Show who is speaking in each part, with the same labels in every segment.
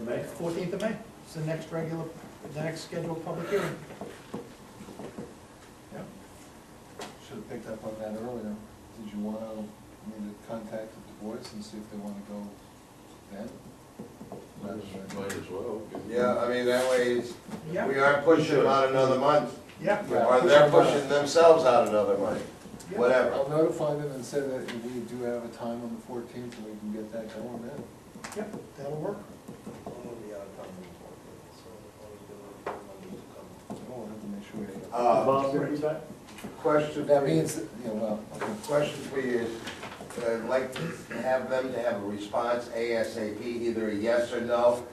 Speaker 1: May?
Speaker 2: Fourteenth of May, it's the next regular, the next scheduled public hearing. Yep.
Speaker 3: Should've picked up on that earlier. Did you wanna, me to contact the boys and see if they wanna go then? Rather than-
Speaker 1: Might as well.
Speaker 4: Yeah, I mean, that way, it's-
Speaker 2: Yeah,
Speaker 4: we aren't pushing them out another month,
Speaker 2: yeah,
Speaker 3: Yeah.
Speaker 4: or they're pushing themselves out another month,
Speaker 2: yeah.
Speaker 4: whatever.
Speaker 3: I'll notify them and say that we do have a time on the fourteenth, and we can get that going then.
Speaker 2: yeah, that'll work.
Speaker 5: I'm gonna be out of town on the fourteenth, so I was gonna, I'm gonna come.
Speaker 3: We'll have to make sure. we-
Speaker 4: Uh,
Speaker 1: Bob, you back?
Speaker 4: Question,
Speaker 3: That means, that- yeah, well, okay.
Speaker 4: Question for you is, uh, I'd like to have them to have a response ASAP, either a yes or no.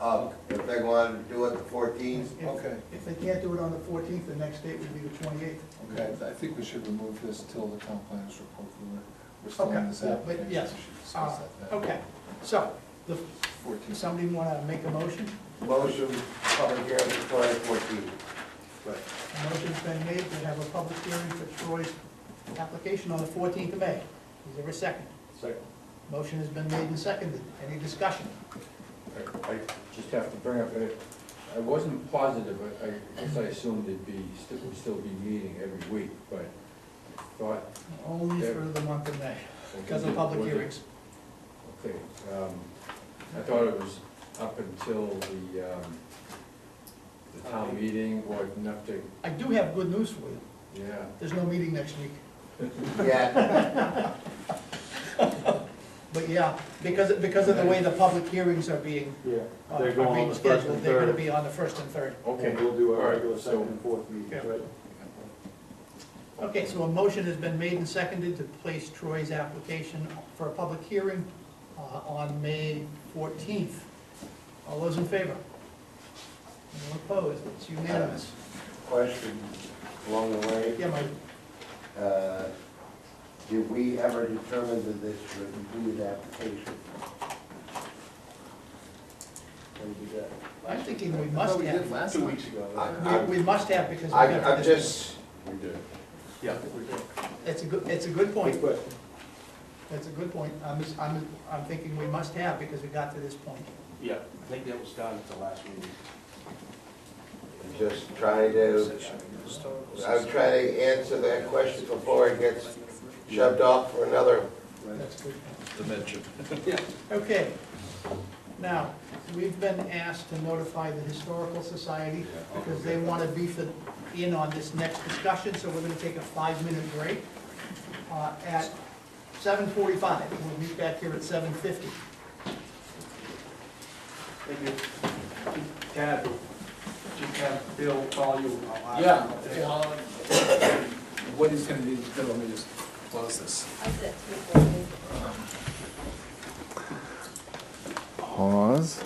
Speaker 4: Uh, if they want to do it the fourteenth,
Speaker 2: If-
Speaker 3: Okay.
Speaker 2: If they can't do it on the fourteenth, the next date would be the twenty-eighth.
Speaker 3: Okay, I think we should remove this till the town planners report, we're, we're still
Speaker 2: Okay,
Speaker 3: in this
Speaker 2: yeah, but
Speaker 3: application.
Speaker 2: yes. Uh,
Speaker 3: We should discuss that then.
Speaker 2: Okay, so, the, does
Speaker 3: 14th.
Speaker 2: somebody wanna make a motion?
Speaker 4: motion, public hearing for July fourteenth.
Speaker 2: A motion's been made to have a public hearing for Troy's application on the fourteenth of May. Is there a second?
Speaker 1: Second.
Speaker 2: Motion has been made and seconded. Any discussion?
Speaker 6: I just have to bring up, uh, I wasn't positive, I- I guess I assumed it'd be, still- would still be meeting every week, but I thought.
Speaker 2: Only for the month of May, because of public
Speaker 6: was it-
Speaker 2: hearings.
Speaker 6: Okay, um, I thought it was up until the, um, the town meeting or enough to,
Speaker 2: I do have good news for you.
Speaker 6: yeah.
Speaker 2: There's no meeting next week.
Speaker 4: Yeah,
Speaker 2: But yeah, because, because of the way the public hearings are being,
Speaker 1: Yeah,
Speaker 2: uh,
Speaker 1: they're
Speaker 2: are
Speaker 1: going on
Speaker 2: being
Speaker 1: the first
Speaker 2: scheduled,
Speaker 1: and
Speaker 2: they're gonna
Speaker 1: third.
Speaker 2: be on the first and third.
Speaker 6: Okay.
Speaker 1: And we'll do
Speaker 6: all
Speaker 1: our
Speaker 6: right,
Speaker 1: regular second
Speaker 6: so-
Speaker 1: and fourth meetings,
Speaker 2: Yeah.
Speaker 1: right?
Speaker 2: Okay, so a motion has been made and seconded to place Troy's application for a public hearing uh, on May 14th. All those in favor? Anyone opposed? It's unanimous.
Speaker 4: question along the way.
Speaker 2: Yeah, Mike?
Speaker 4: Uh, Did we ever determine that this was a completed application?
Speaker 5: Can we do that?
Speaker 2: I'm thinking we
Speaker 3: I thought
Speaker 2: must
Speaker 3: we did
Speaker 2: have.
Speaker 3: last
Speaker 5: Two
Speaker 3: time.
Speaker 5: weeks ago.
Speaker 4: I-
Speaker 2: We we must have because we
Speaker 4: I,
Speaker 2: got
Speaker 4: I'm
Speaker 2: this.
Speaker 4: just,
Speaker 6: We did.
Speaker 1: Yeah, we did.
Speaker 2: It's a good, it's a good point.
Speaker 1: Good question.
Speaker 2: That's a good point. I'm, just- I'm, I'm thinking we must have because we got to this point.
Speaker 5: Yeah, I think that was done at the last meeting.
Speaker 4: just trying to, I'm trying to answer that question before it gets shoved off for another
Speaker 2: That's a good. point.
Speaker 1: Dimension.
Speaker 2: Okay. Now, we've been asked to notify the Historical Society because they want to be for- in on this next discussion, so we're going to take a five-minute break uh, at 7:45. We'll meet back here at 7:50.
Speaker 5: Thank you. Ted, just have Bill call you. I'll
Speaker 3: Yeah,
Speaker 5: ask him.
Speaker 3: yeah, I'll- what he's gonna do is gonna let me just close this.
Speaker 7: I said three, four,
Speaker 3: Pause.